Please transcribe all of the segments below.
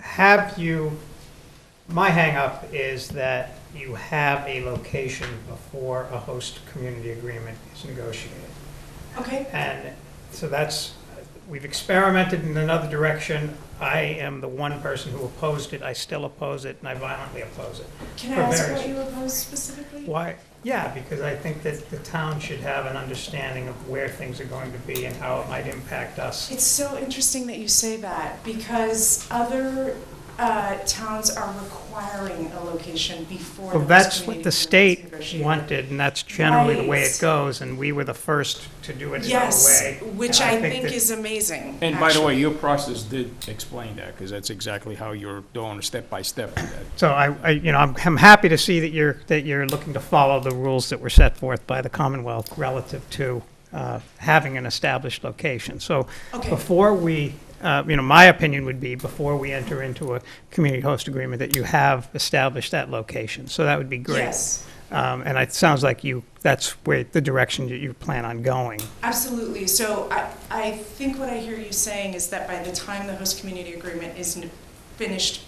have you, my hangup is that you have a location before a host community agreement is negotiated. Okay, And so that's, we've experimented in another direction. I am the one person who opposed it. I still oppose it, and I violently oppose it. can I For ask various- what you oppose specifically? Why? Yeah, because I think that the town should have an understanding of where things are going to be and how it might impact us. It's so interesting that you say that because other uh, towns are requiring a location before. Well, host that's what the community agreement is state negotiated. wanted, and that's generally the way it Right. goes, and we were the first to do it in our Yes, way. which and I think that- is amazing. And by the way, actually. your process did explain that, because that's exactly how you're doing, step by step. with that. So I, I, you know, I'm, I'm happy to see that you're, that you're looking to follow the rules that were set forth by the Commonwealth relative to, uh, having an established location. So Okay. before we, uh, you know, my opinion would be before we enter into a community host agreement, that you have established that location. So that would be great. Yes, Um, and it sounds like you, that's where, the direction that you plan on going. absolutely. So I, I think what I hear you saying is that by the time the host community agreement is n- finished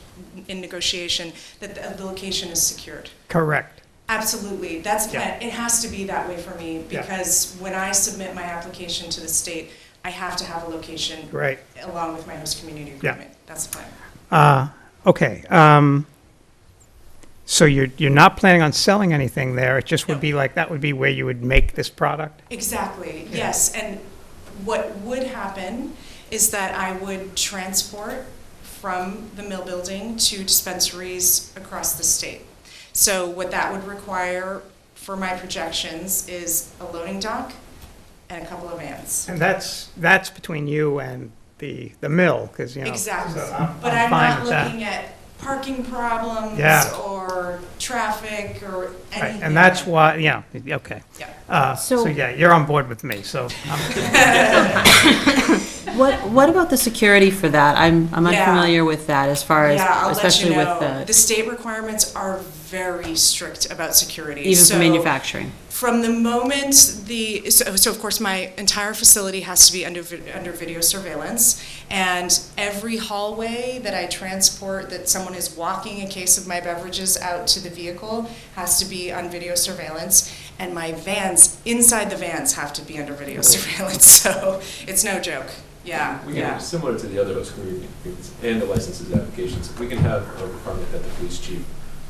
in negotiation, that the- the location is secured. Correct. Absolutely, that's, Yeah. plan- it has to be that way for me, Yeah. because when I submit my application to the state, I have to have a location Right. along with my host community Yeah. agreement. That's fine. Uh, okay. Um, so you're, you're not planning on selling anything there. It just would No. be like, that would be where you would make this product? Exactly, Yeah. yes, and what would happen is that I would transport from the mill building to dispensaries across the state. So what that would require for my projections is a loading dock and a couple of vans. And that's, that's between you and the, the mill, because, you know. Exactly, so I'm- but I'm fine not with that. looking at parking problems Yeah. or traffic or Right, anything. And that's why, yeah, okay. Yeah. Uh, so So- yeah, you're on board with me, so um, I'm What, what about the security for that? I'm, I'm Yeah. unfamiliar with that as far as, Yeah, I'll let you especially with know, the the, state requirements are very strict about security. even for So manufacturing. From the moment the, so, so of course, my entire facility has to be under, vi- under video surveillance. And every hallway that I transport, that someone is walking a case of my beverages out to the vehicle, has to be on video surveillance. And my vans, inside the vans, have to be under video surveillance, so it's no joke, yeah, We can, yeah. similar to the other host community agreements and the licenses applications, we can have a requirement that the police chief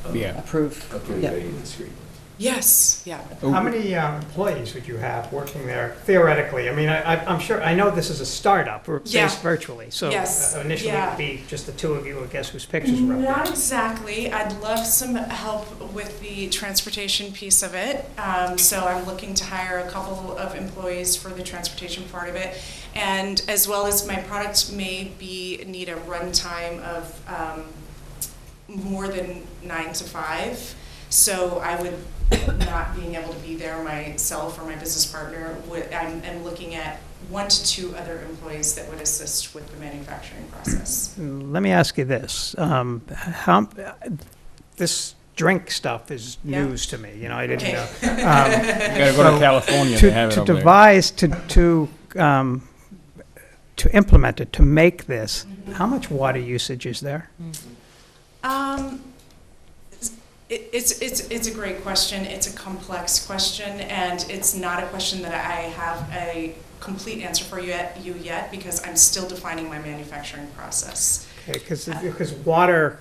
um, Yeah. Approve. approve Yep. any of the street. Yes, yeah. How many uh, employees would you have working there theoretically? I mean, I, I- I'm sure, I know this is a startup, we're Yeah. based virtually, so Yes, uh, initially yeah. it'd be just the two of you, I guess whose pictures were up there. Not exactly. I'd love some help with the transportation piece of it. Um, so I'm looking to hire a couple of employees for the transportation part of it. And as well as my product may be, need a runtime of, um, more than nine to five. So I would, not being able to be there myself or my business partner, would, I'm, I'm looking at one to two other employees that would assist with the manufacturing process. Let me ask you this, um, how, this drink stuff is Yeah. news to me, you know, I didn't Okay. know. Um, You gotta go So, to California, to- they have it To over there. devise, to, to, um, to implement it, to make this, Mm-hmm. how much water usage is there? Um, it, it's, it's, it's a great question, it's a complex question, and it's not a question that I have a complete answer for you yet, you yet, because I'm still defining my manufacturing process. Because, because water,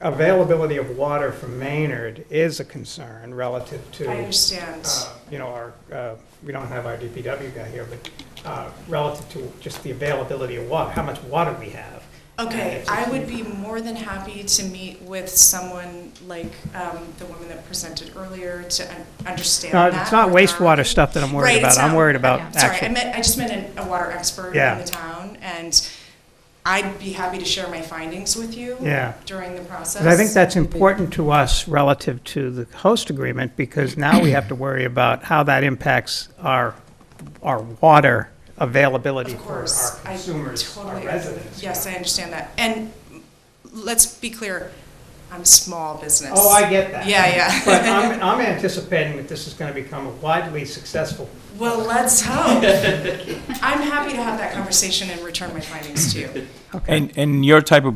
availability of water from Maynard is a concern relative to. I understand. uh, You know, our, uh, we don't have our DPW guy here, but uh, relative to just the availability of water, how much water we have. Okay, It's a I would huge- be more than happy to meet with someone like, um, the woman that presented earlier to un- understand No, that. it's not regard. wastewater stuff that I'm worried Right, about. it's I'm not- worried about Sorry, I actual. meant, I just meant an- a water expert Yeah. in the town, and I'd be happy to share my findings with you. Yeah. during the process. Because I think that's important to us relative to the host agreement, because now we have to worry about how that impacts our, our water availability Of for course, our I consumers, our totally- residents. Yes, I understand that. And let's be clear, I'm a small business. Oh, I get that. Yeah, yeah. But I'm, I'm anticipating that this is going to become a widely successful. Well, let's hope. I'm happy to have that conversation and return my findings to you. Okay. And, and your type of